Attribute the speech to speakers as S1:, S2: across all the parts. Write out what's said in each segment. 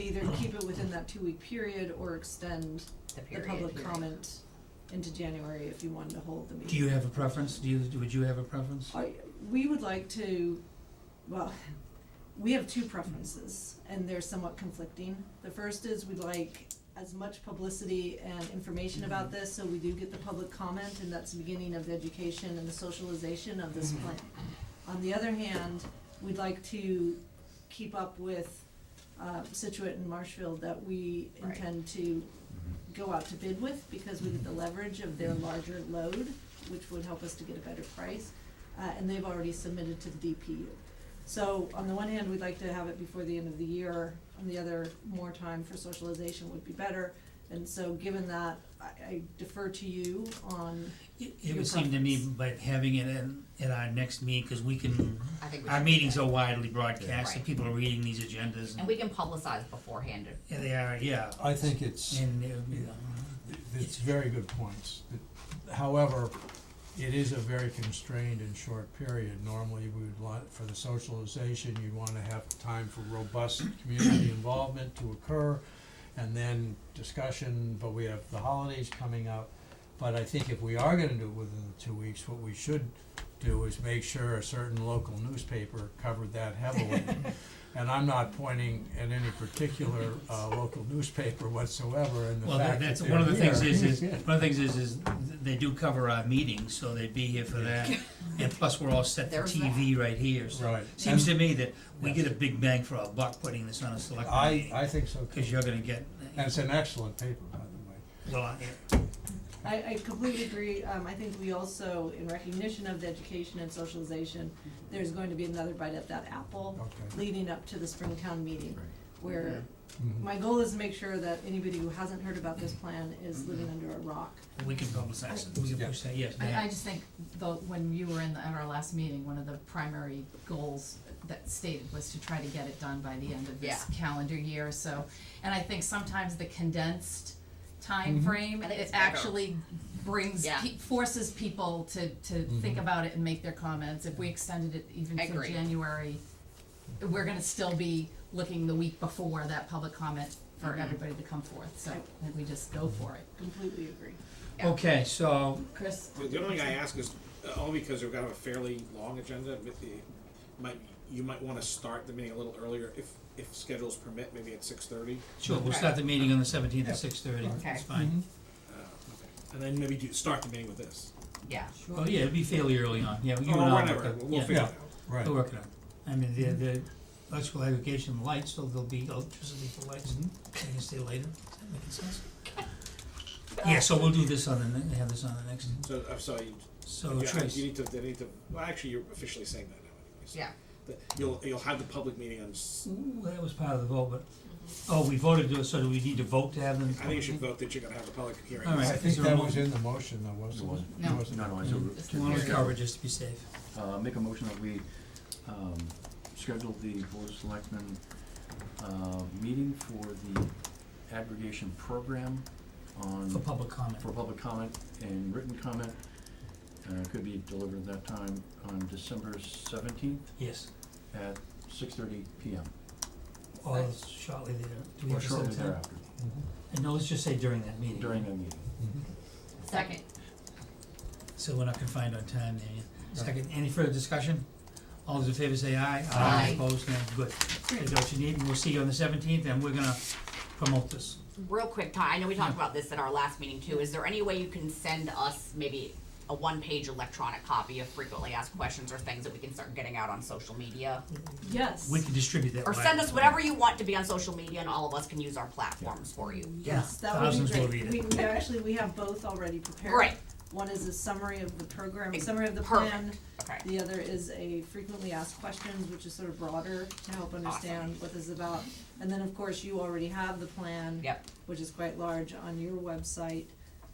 S1: either keep it within that two-week period or extend
S2: the
S1: the
S2: period.
S1: public comment into January if you wanted to hold the meeting.
S3: Do you have a preference? Do you, would you have a preference?
S1: I, we would like to, well, we have two preferences, and they're somewhat conflicting. The first is we'd like as much publicity and information about
S2: Mm-hmm.
S1: this, so we do get the public comment, and that's the beginning of the education and the socialization of
S2: Mm-hmm.
S1: this plan. On the other hand, we'd like to keep up with, uh, Situate and Marshfield that we
S2: Right.
S1: intend to go out to bid with, because we get the leverage of their larger load, which would help us to get a better price uh, and they've already submitted to the DPU. So on the one hand, we'd like to have it before the end of the year, on the other, more time for socialization would be better. And so given that, I, I defer to you on,
S3: It,
S1: Your
S3: it would seem to me,
S1: preference.
S3: by having it at, at our next meeting, cause we can,
S4: Mm-hmm.
S2: I think we
S3: our
S2: should do
S3: meetings
S2: that.
S3: are widely broadcast, and
S2: Right.
S3: people are reading these agendas,
S2: And
S3: and,
S2: we can publicize beforehand. if-
S3: yeah, they are, yeah,
S4: I think it's,
S3: and uh, it would be,
S4: it's very good points. However, it is a very constrained and short period. Normally, we would want, for the socialization, you'd wanna have time for robust community involvement to occur, and then discussion, but we have the holidays coming up. But I think if we are gonna do it within the two weeks, what we should do is make sure a certain local newspaper covered that heavily. And I'm not pointing at any particular, uh, local newspaper whatsoever, and the
S3: well, that-
S4: fact that
S3: that's,
S4: they're
S3: one of the things
S4: here
S3: is, is,
S4: Yeah.
S3: one of the things is, is they do cover our meetings, so they'd be here for that. And plus, we're all set for
S2: There's that.
S3: TV right here, so
S4: Right.
S3: seems
S4: And
S3: to me that we
S4: Yes.
S3: get a big bang for our buck putting this on a select
S4: I,
S3: meeting,
S4: I think so
S3: cause
S4: too.
S3: you're gonna get,
S4: And it's an excellent paper, by the way.
S3: well, I-
S1: I, I completely agree. Um, I think we also, in recognition of the education and socialization, there's going to be another bite at that apple
S4: Okay.
S1: leading up to the Springtown meeting,
S5: Right.
S1: where
S3: Mm-hmm.
S4: Mhm.
S1: my goal is to make sure that anybody who hasn't heard about this plan is
S3: Mm-hmm.
S1: living under a rock.
S3: we can publicize it, we can
S4: Yeah.
S3: push that, yes,
S6: I,
S3: ma'am.
S6: I just think, though, when you were in the, at our last meeting, one of the primary goals that stated was to try to get it done by the end of this calendar year, so. And I think sometimes the condensed time frame
S2: I think
S6: it
S2: it's better.
S6: actually brings,
S2: Yeah.
S6: pe- forces people to, to think about it and make their comments. If we extended it even
S2: I
S6: to
S2: agree.
S6: January, we're gonna still be looking the week before that public comment for
S2: Mm-hmm.
S6: everybody to come forth, so I think we just go for it.
S1: Completely agree.
S2: Yeah.
S3: Okay, so,
S6: Chris?
S7: Well, the only thing I ask is, uh, only because we've got a fairly long agenda, but the, might, you might wanna start the meeting a little earlier if, if schedules permit, maybe at six thirty.
S3: sure, we'll start the meeting on the seventeenth at six thirty,
S2: Okay.
S3: that's fine.
S7: And then maybe do, start the meeting with this.
S2: Yeah.
S3: Oh, yeah, it'd be fairly early on, yeah, you and I will
S7: Or
S3: work
S7: Oh, whatever,
S3: it, yeah,
S7: we'll figure it out.
S4: Right.
S3: we'll work it out. I mean, the, the electrical aggregation lights, so there'll be electricity for lights, they can stay later, does that make sense? Yeah, so we'll do this on the, ne- have this on the next,
S7: So, I'm sorry,
S3: so
S7: you, yeah,
S3: Trace,
S7: you need to, they need to, well, actually, you're officially saying that now anyways.
S2: Yeah.
S7: That You'll, you'll have the public meeting on, s-
S3: Ooh, that was part of the vote, but, oh, we voted, to- so do we need to vote to have them?
S7: I think you should vote that you're gonna have a public hearing.
S3: All right.
S4: I
S3: Is
S4: think
S3: there a
S4: that
S3: mo-
S4: was in the motion, though, wasn't it?
S6: No.
S4: Wasn't it?
S5: No, no, it's over.
S6: Just
S3: One was covered, Mm. just to be safe.
S5: Uh, make a motion that we, um, schedule the Board of Selectmen, uh, meeting for the aggregation program on,
S3: For public comment.
S5: for public comment and written comment. Uh, could be delivered at that time on December seventeenth
S3: Yes,
S5: at six thirty P M.
S3: or shortly there. Do we
S5: Or
S3: have to set a
S5: shortly
S3: time?
S5: thereafter,
S3: And no, let's just say during that meeting.
S5: during that meeting.
S2: Second.
S3: So we're not confined on time there, yeah. Second, any further discussion? All those in favor say aye.
S2: Aye.
S3: Opposed, no, good. That's what you need, and we'll see you on the seventeenth, and we're gonna promote this.
S2: Real quick, Todd, I know we talked about this at our last meeting too. Is there any way you can send us maybe a one-page electronic copy of frequently asked questions or things that we can start getting out on social media?
S1: Yes.
S3: We can distribute that.
S2: Or
S3: right
S2: send us
S3: away.
S2: whatever you want to be on social media and all of us can use our platforms for you.
S1: Yes, that would
S3: Thousands
S1: be
S3: will
S1: great.
S3: read
S1: We, we actually, we have both already prepared.
S2: Great.
S1: One is a summary of the program,
S2: Ex-
S1: summary of the
S2: perfect.
S1: plan.
S2: Okay.
S1: The other is a frequently asked questions, which is sort of broader to help understand what this is about. And then, of course, you already have the plan.
S2: Yep.
S1: Which is quite large on your website.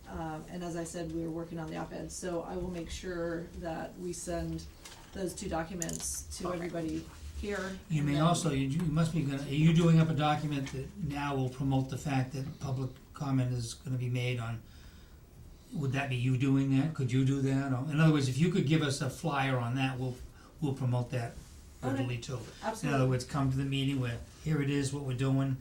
S1: Um, and as I said, we were working on the op-ed, so I will make sure that we send those two documents to
S2: Perfect.
S1: everybody here.
S3: You
S1: and
S3: may
S1: then-
S3: also, you you must be gonna, are you doing up a document that now will promote the fact that public comment is gonna be made on, would that be you doing that? Could you do that? Or, in other words, if you could give us a flyer on that, we'll, we'll promote that
S1: Okay.
S3: readily too. In
S1: Absolutely.
S3: other words, come to the meeting where, here it is, what we're doing,